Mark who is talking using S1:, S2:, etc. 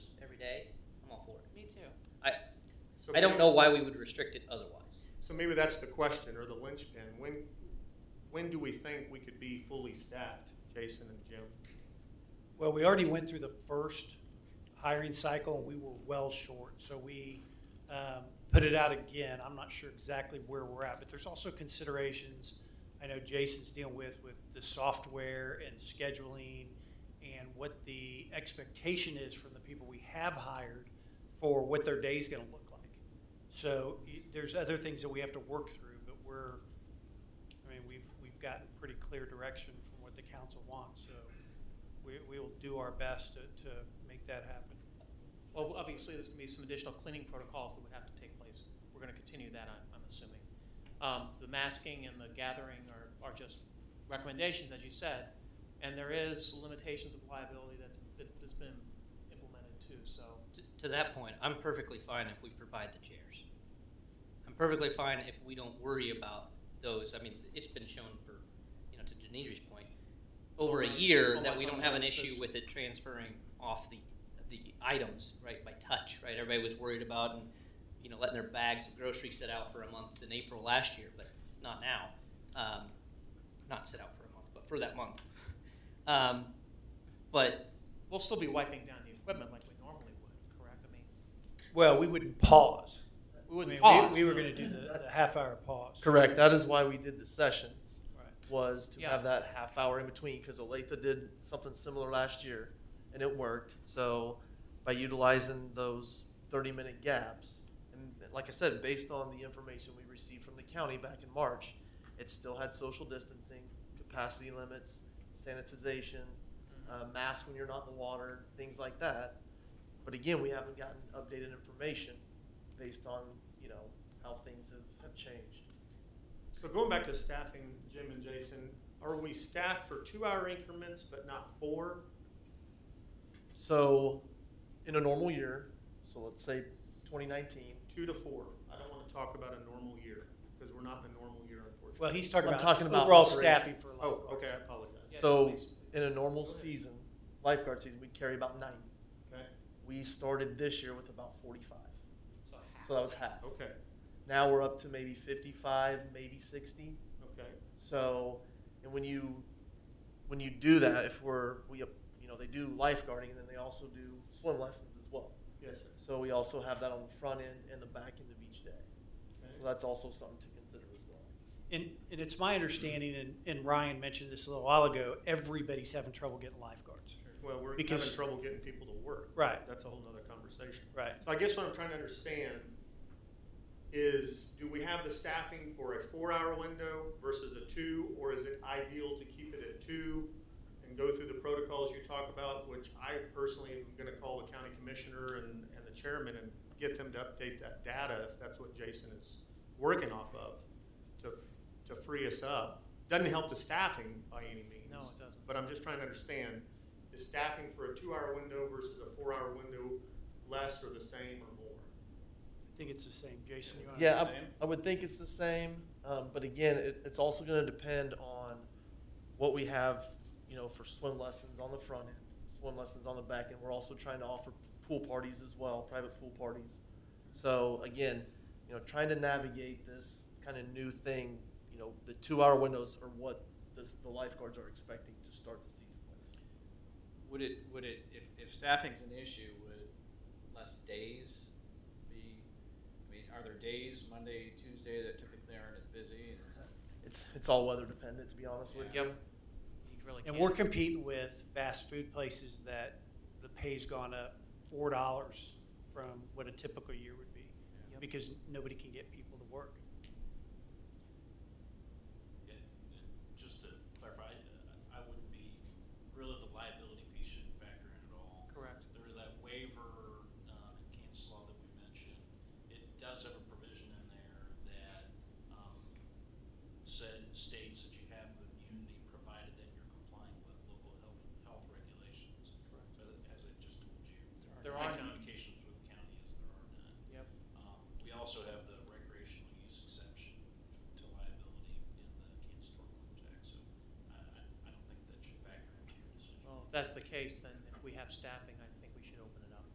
S1: too.
S2: So
S3: I don't
S2: maybe-
S3: know why we would restrict it otherwise.
S2: So maybe that's the question or the linchpin. When, when do we think we could be fully staffed, Jason and Jim?
S4: Well, we already went through the first hiring cycle, and we were well short, so we um, put it out again. I'm not sure exactly where we're at, but there's also considerations I know Jason's dealing with, with the software and scheduling, and what the expectation is from the people we have hired for what their day's gonna look like. So y- there's other things that we have to work through, but we're, I mean, we've, we've gotten pretty clear direction from what the council wants, so we, we will do our best to, to make that happen.
S1: Well, obviously, there's gonna be some additional cleaning protocols that would have to take place. We're gonna continue that, I'm, I'm assuming. Um, the masking and the gathering are, are just recommendations, as you said, and there is limitations of liability that's, that- that's been implemented too, so.
S3: T- To that point, I'm perfectly fine if we provide the chairs. I'm perfectly fine if we don't worry about those. I mean, it's been shown for, you know, to Denise's point, over a
S1: Overruns-
S3: year that
S1: overruns
S3: we
S1: on
S3: don't have an issue
S1: services.
S3: with it transferring off the, the items, right, by touch, right? Everybody was worried about and, you know, letting their bags of groceries sit out for a month in April last year, but not now. Um, not sit out for a month, but for that month. Um, but
S1: We'll still be wiping down the equipment like we normally would, correct? I mean,
S4: Well, we wouldn't pause.
S1: we wouldn't
S4: I mean,
S1: pause.
S4: We, we were gonna do the, the half hour pause.
S5: Correct. That is why we did the sessions,
S4: Right.
S5: was to
S1: Yeah.
S5: have that half hour in between, because Olathe did something similar last year, and it worked. So by utilizing those 30 minute gaps, and like I said, based on the information we received from the county back in March, it still had social distancing, capacity limits, sanitization, uh, mask when you're not in the water, things like that. But again, we haven't gotten updated information based on, you know, how things have, have changed.
S2: So going back to staffing, Jim and Jason, are we staffed for two-hour increments but not four?
S5: So, in a normal year, so let's say 2019,
S2: Two to four? I don't want to talk about a normal year because we're not in a normal year unfortunately.
S4: Well, he's talking
S5: I'm
S4: about
S5: talking about
S4: overall
S5: operations.
S4: staffing for
S2: Oh,
S4: lifeguards.
S2: okay, I apologize.
S1: Yeah,
S5: so-
S1: please.
S5: in a normal
S2: Go ahead.
S5: season, lifeguard season, we carry about 90.
S2: Okay,
S5: We started this year with about 45.
S1: So half.
S5: So that was half.
S2: okay,
S5: Now we're up to maybe 55, maybe 60.
S2: okay.
S5: So, and when you when you do that, if we're we you know they do lifeguarding and then they also do swim lessons as well.
S2: Yes, sir.
S5: So we also have that on the front end and the back end of each day. So
S2: Okay.
S5: that's also something to consider as well.
S4: And, and it's my understanding, and, and Ryan mentioned this a little while ago, everybody's having trouble getting lifeguards.
S2: Well, we're having
S4: Because-
S2: trouble getting people to work.
S4: Right,
S2: That's a whole nother conversation.
S4: right.
S2: So I guess what I'm trying to understand is, do we have the staffing for a four-hour window versus a two? Or is it ideal to keep it at two and go through the protocols you talk about, which I personally am gonna call the county commissioner and, and the chairman and get them to update that data, if that's what Jason is working off of, to, to free us up. Doesn't help the staffing by any means.
S1: No, it doesn't.
S2: But I'm just trying to understand, is staffing for a two-hour window versus a four-hour window less or the same or more?
S4: I think it's the same. Jason, you want to?
S5: Yeah,
S1: the same?
S5: I, I would think it's the same, um, but again, it, it's also gonna depend on what we have, you know, for swim lessons on the front end, swim lessons on the back end. We're also trying to offer pool parties as well, private pool parties. So again, you know, trying to navigate this kind of new thing, you know, the two-hour windows are what this, the lifeguards are expecting to start the season with.
S6: Would it, would it, if, if staffing's an issue, would less days be, I mean, are there days, Monday, Tuesday, that typically aren't as busy?
S5: It's, it's all weather dependent, to be honest with you.
S1: Yep. You really
S4: And
S1: can't.
S4: we're competing with fast food places that the pay's gone up four dollars from what a typical year would be,
S1: Yep.
S4: because nobody can get people to work.
S7: And and just to clarify, I- I wouldn't be, really the liability piece shouldn't factor in at all.
S1: Correct.
S7: There was that waiver um, in Kansas law that we mentioned. It does have a provision in there that um, said, states that you have immunity provided that you're complying with local health, health regulations. So as I just told you.
S1: There
S7: My
S1: are none.
S7: communications with the county is there are none.
S1: Yep.
S7: Um, We also have the recreational use exception to liability in the Kansas Stormwater Act, so I, I, I don't think that should factor into your decision.
S1: Well, if that's the case, then if we have staffing, I